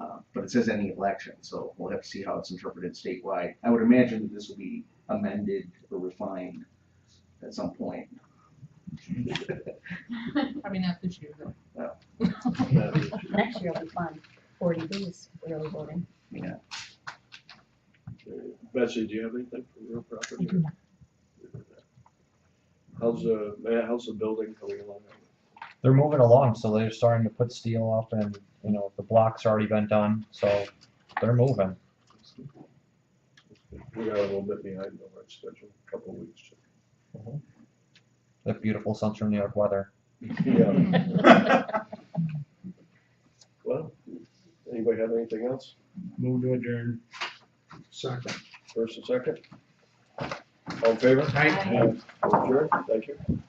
Uh, But it says any election, so we'll have to see how it's interpreted statewide. I would imagine that this will be amended or refined at some point. Probably not this year, though. uh, Next year will be fun, forty Bs, early voting. Betsy, do you have anything from your property? How's the, Matt, how's the building coming along? they're moving along, so they're starting to put steel up and, you know, the block's already been done, so they're moving. We got a little bit behind on our schedule, a couple of weeks. The beautiful Central New York weather. Yeah. Well, anybody have anything else? Move to adjourn. Second. First and second? All in favor? Aye. Adjourn, thank you.